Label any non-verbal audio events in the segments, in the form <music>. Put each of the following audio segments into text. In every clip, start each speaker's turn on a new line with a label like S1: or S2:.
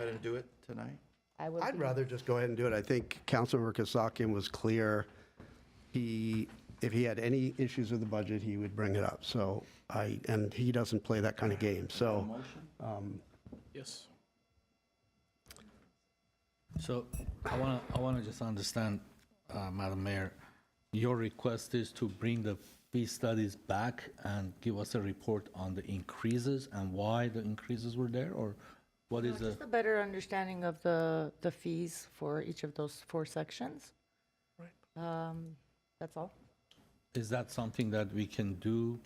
S1: to do it tonight?
S2: I would
S3: I'd
S2: be-
S3: rather just go ahead and do it. I think Councilmember Kasakian was clear. He, if he had any issues with the budget, he would bring it up. So I, and he doesn't play that kind of game. So
S4: Yes. So I want to, I want to just understand, uh, Madam Mayor, your request is to bring the fee studies back and give us a report on the increases and why the increases were there, or what is the?
S2: Just a better understanding of the, the fees for each of those four sections. Um, That's all.
S4: Is that something that we can do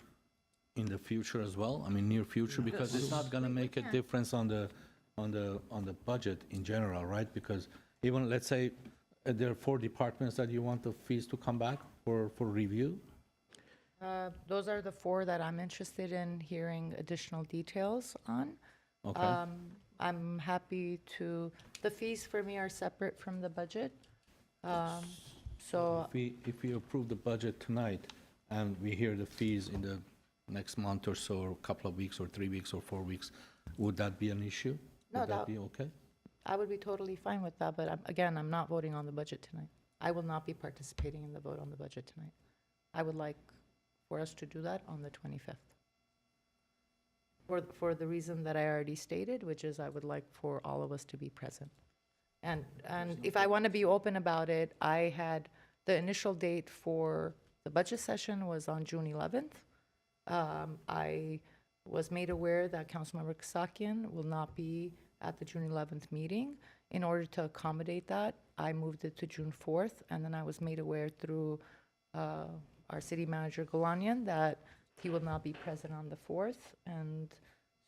S4: in the future as well? I mean, near future, because it's not gonna make a difference on the, on the, on the budget in general, right? Because even, let's say, uh, there are four departments that you want the fees to come back for, for review?
S2: Uh, Those are the four that I'm interested in hearing additional details on.
S4: Okay,
S2: Um, I'm happy to, the fees for me are separate from the budget. Um, So
S4: if we, if we approve the budget tonight, and we hear the fees in the next month or so, or a couple of weeks, or three weeks, or four weeks, would that be an issue?
S2: No,
S4: Would
S2: that-
S4: that be okay?
S2: I would be totally fine with that, but I'm- again, I'm not voting on the budget tonight. I will not be participating in the vote on the budget tonight. I would like for us to do that on the 25th. For, for the reason that I already stated, which is I would like for all of us to be present. And, and if I want to be open about it, I had, the initial date for the budget session was on June 11th. Um, I was made aware that Councilmember Kasakian will not be at the June 11th meeting. In order to accommodate that, I moved it to June 4th, and then I was made aware through uh, our city manager, Galanian, that he will not be present on the 4th. And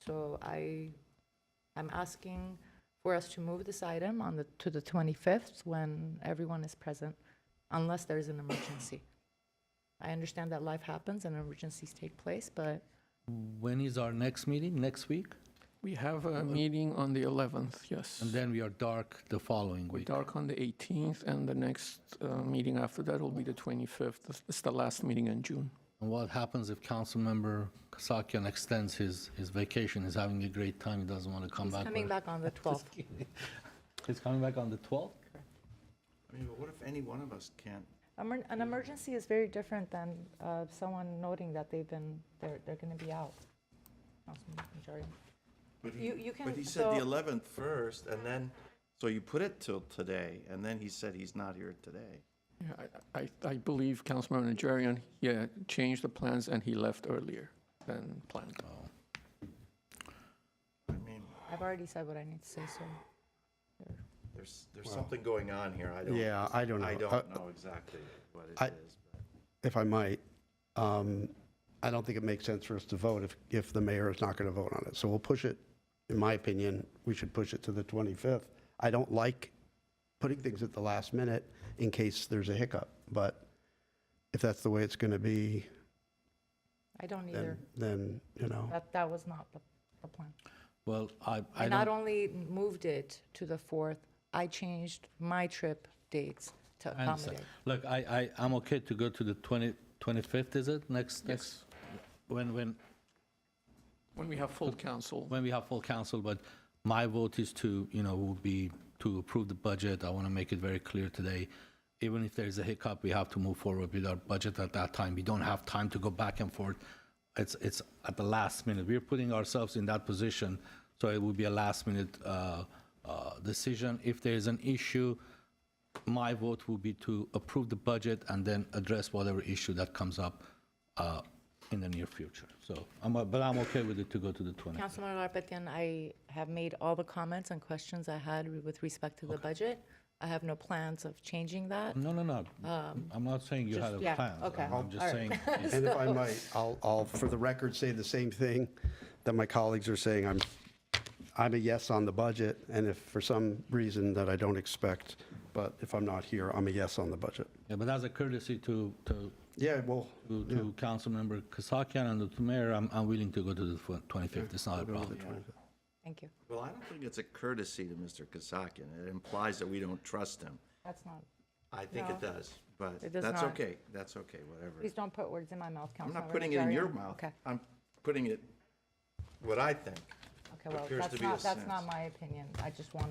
S2: so I, I'm asking for us to move this item on the, to the 25th when everyone is present, unless there is an emergency. I understand that life happens and emergencies take place, but
S4: When is our next meeting? Next week?
S5: We have a meeting on the 11th, yes.
S4: And then we are dark the following
S5: We're
S4: week.
S5: dark on the 18th, and the next uh, meeting after that will be the 25th. This- It's the last meeting in June.
S4: And what happens if Councilmember Kasakian extends his, his vacation, he's having a great time, he doesn't want to come
S2: he's
S4: back?
S2: coming
S4: or-
S2: back on the 12th.
S4: <laughs> He's coming back on the 12th?
S1: I mean, but what if any one of us can't?
S2: Emer- An emergency is very different than uh, someone noting that they've been, they're, they're going to be out. Councilman Najarian.
S1: But
S2: You- you
S1: But he
S2: can-
S1: said the
S2: so-
S1: 11th first, and then, so you put it till today, and then he said he's not here today.
S5: Yeah, I, I, I believe Councilman Najarian, yeah, changed the plans, and he left earlier than planned.
S1: I mean,
S2: I've already said what I need to say, so.
S1: there's, there's something going on here. I don't.
S3: Yeah, I don't
S1: I
S3: know.
S1: don't
S3: Uh,
S1: know exactly what
S3: I-
S1: it is. but-
S3: if I might, um, I don't think it makes sense for us to vote if, if the mayor is not going to vote on it. So we'll push it, in my opinion, we should push it to the 25th. I don't like putting things at the last minute in case there's a hiccup, but if that's the way it's going to be,
S2: I don't
S3: then,
S2: either.
S3: then, you know.
S2: That, that was not the, the plan.
S4: Well, I,
S2: I
S4: I
S2: not
S4: don't,
S2: only moved it to the 4th, I changed my trip dates to
S4: I understand.
S2: accommodate.
S4: Look, I, I, I'm okay to go to the 20, 25th, is it? Next, next,
S5: Yes,
S4: when, when,
S5: when we have full council.
S4: when we have full council, but my vote is to, you know, would be to approve the budget. I want to make it very clear today. Even if there's a hiccup, we have to move forward with our budget at that time. We don't have time to go back and forth. It's, it's at the last minute. We're putting ourselves in that position, so it would be a last minute uh, uh, decision. If there's an issue, my vote will be to approve the budget and then address whatever issue that comes up uh, in the near future. So, I'm, uh, but I'm okay with it to go to the 20th.
S2: Councilman Garpetian, I have made all the comments and questions I had with respect to the budget. I have no plans of changing that.
S4: No, no, no. I'm not saying you
S2: Um, just-
S4: had a
S2: yeah,
S4: plan.
S2: okay,
S4: I'm just
S2: alright. <laughs>
S4: saying,
S3: And if I might, I'll, I'll, for the record, say the same thing that my colleagues are saying. I'm, I'm a yes on the budget, and if for some reason that I don't expect, but if I'm not here, I'm a yes on the budget.
S4: yeah, but as a courtesy to, to,
S3: Yeah, well,
S4: to- to Councilmember Kasakian and the mayor, I'm, I'm willing to go to the twen- 25th. It's not a problem.
S2: Thank you.
S1: Well, I don't think it's a courtesy to Mr. Kasakian. It implies that we don't trust him.
S2: That's not,
S1: I think it does, but
S2: It does
S1: that's
S2: not.
S1: okay. That's okay, whatever.
S2: please don't put words in my mouth,
S1: I'm
S2: Councilman.
S1: not putting it in your mouth.
S2: Okay,
S1: I'm putting it, what I think.
S2: okay, well,
S1: appears to
S2: that's
S1: be a
S2: not, that's not
S1: sense.
S2: my opinion. I just want